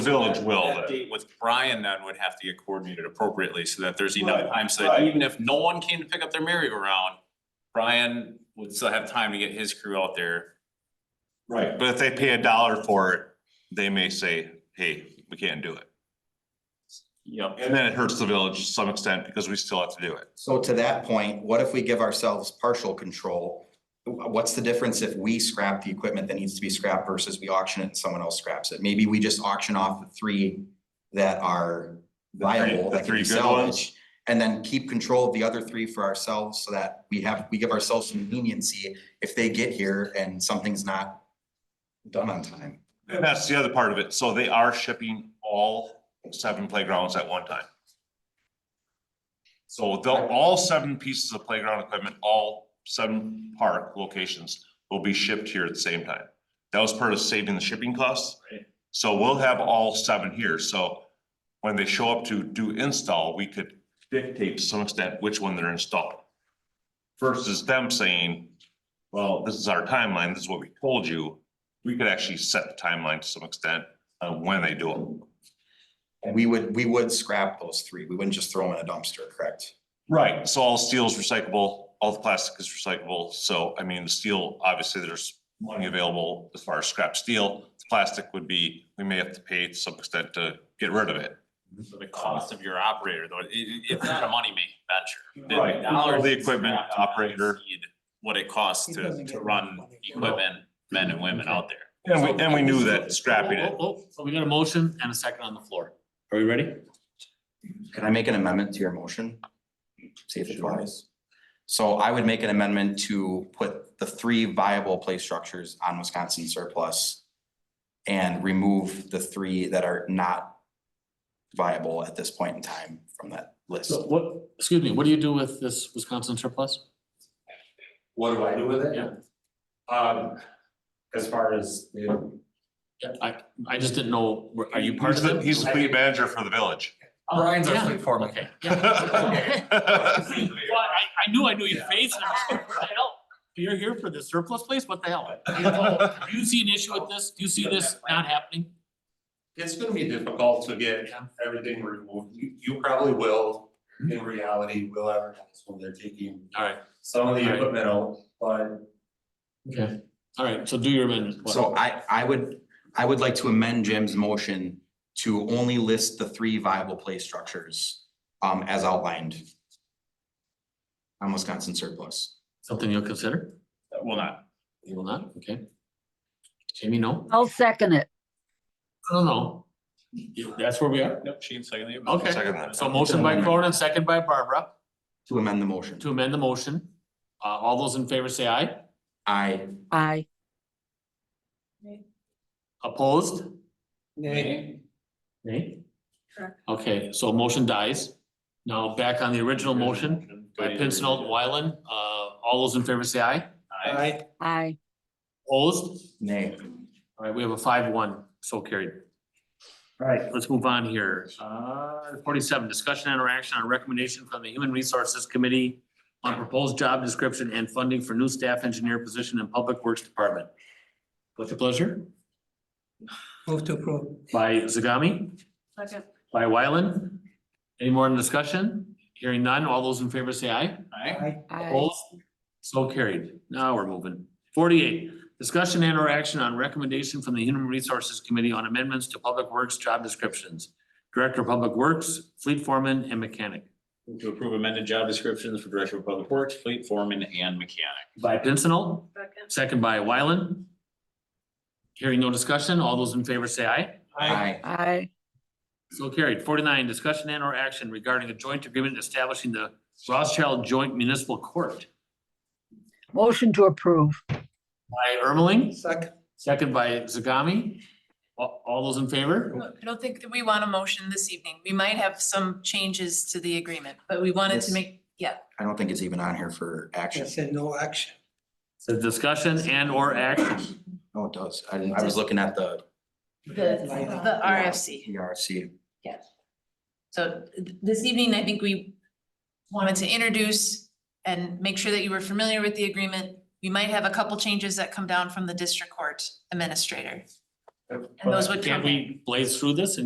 village will, That but- date with Brian then would have to get coordinated appropriately so that there's enough Right, time so that right. even if no one came to pick up their merry-go-round, Brian would still have time to get his crew out there. right, but if they pay a dollar for it, they may say, hey, we can't do it. Yep. And then it hurts the village to some extent because we still have to do it. So to that point, what if we give ourselves partial control? Wh- What's the difference if we scrap the equipment that needs to be scrapped versus we auction it and someone else scraps it? Maybe we just auction off the three that are three- viable, the that can three be good ones? salvaged. And then keep control of the other three for ourselves so that we have, we give ourselves some leniency if they get here and something's not done on time. And that's the other part of it. So they are shipping all seven playgrounds at one time. So they'll, all seven pieces of playground equipment, all seven park locations will be shipped here at the same time. That was part of saving the shipping costs. Right. So we'll have all seven here. So when they show up to do install, we could dictate to some extent which one they're installing. Versus them saying, well, this is our timeline, this is what we told you we could actually set the timeline to some extent on when they do it. And we would, we would scrap those three. We wouldn't just throw them in a dumpster, correct? Right. So all steel is recyclable, all the plastic is recyclable, so I mean, the steel, obviously, there's money available as far as scrap steel. Plastic would be, we may have to pay to some extent to get rid of it. So the cost of your operator though, it, it- it's not a money-making venture. The Right. dollars The equipment scrapped do not operator. exceed What it costs It to, doesn't to get run money. equipment, men and women out there. And we, and we knew that scrapping it. Oh, oh, oh, So we got a motion and a second on the floor. Are we ready? Can I make an amendment to your motion? See if it flies. So I would make an amendment to put the three viable play structures on Wisconsin surplus and remove the three that are not viable at this point in time from that list. So what, excuse me, what do you do with this Wisconsin surplus? What do I do with it? Yeah. Um, as far as, you know, I, I just didn't know, were- are you part He's of the, it? he's the fleet manager for the village. Brian's Oh, our Yeah, fleet foreman. Okay. Well, yeah. Well, I, I knew I knew your face. and I was like, "What the hell? You're here for the surplus place? What the hell? You know, Do you see an issue with this? Do you see this not happening? it's gonna be difficult to get Yeah. Hmm. everything removed. You, you probably will, in reality, will advertise when they're taking All right, some of the Right. equipment out, but okay. All right, so do your amendment. What? So I, I would, I would like to amend Jim's motion to only list the three viable play structures um, as outlined on Wisconsin surplus. Something you'll consider? Will not. You will not? Okay. Jamie, no? I'll second it. No, no. You- That's where we are? Nope, Shane seconded it. Okay. Second that. So motion by Cronin, second by Barbara. To amend the motion. to amend the motion. Uh, all those in favor say aye. I Aye. Opposed? Nay. Nay. Correct. Okay, so motion dies. Now back on the original motion by Pincinot and Wyland. Uh, all those in favor say aye. Aye. Aye. Opposed? Nay. All right, we have a five one, so carried. All right, let's move on here. Uh, forty-seven, discussion and or action on recommendation from the Human Resources Committee on proposed job description and funding for new staff engineer position in Public Works Department. What's your pleasure? Move to approve. By Zagami? Second. By Wyland? Any more in discussion? Hearing none, all those in favor say aye. Aye. Opposed? So carried. Now we're moving. Forty-eight, discussion and or action on recommendation from the Human Resources Committee on amendments to Public Works job descriptions. Director of Public Works, Fleet Foreman and Mechanic. Move To approve amended job descriptions for Director of Public Works, Fleet Foreman, and Mechanic. By Pincinel, second by Wyland. Hearing no discussion, all those in favor say aye. I Aye. So carried. Forty-nine, discussion and or action regarding a joint agreement establishing the Rothschild Joint Municipal Court. Motion to approve. By Ermeling, Second. second by Zagami. All, all those in favor? uh, I don't think that we want a motion this evening. We might have some changes to the agreement, but we wanted Yes. to make, yeah, I don't think it's even on here for action. It said no action. So discussion and or action. No, it does. I didn't, I was looking at the the, Right. the RFC. ERC. So th- this evening, I think we wanted to introduce and make sure that you were familiar with the agreement. We might have a couple changes that come down from the district court administrator. And those would Uh, Can't come in. we blaze through this and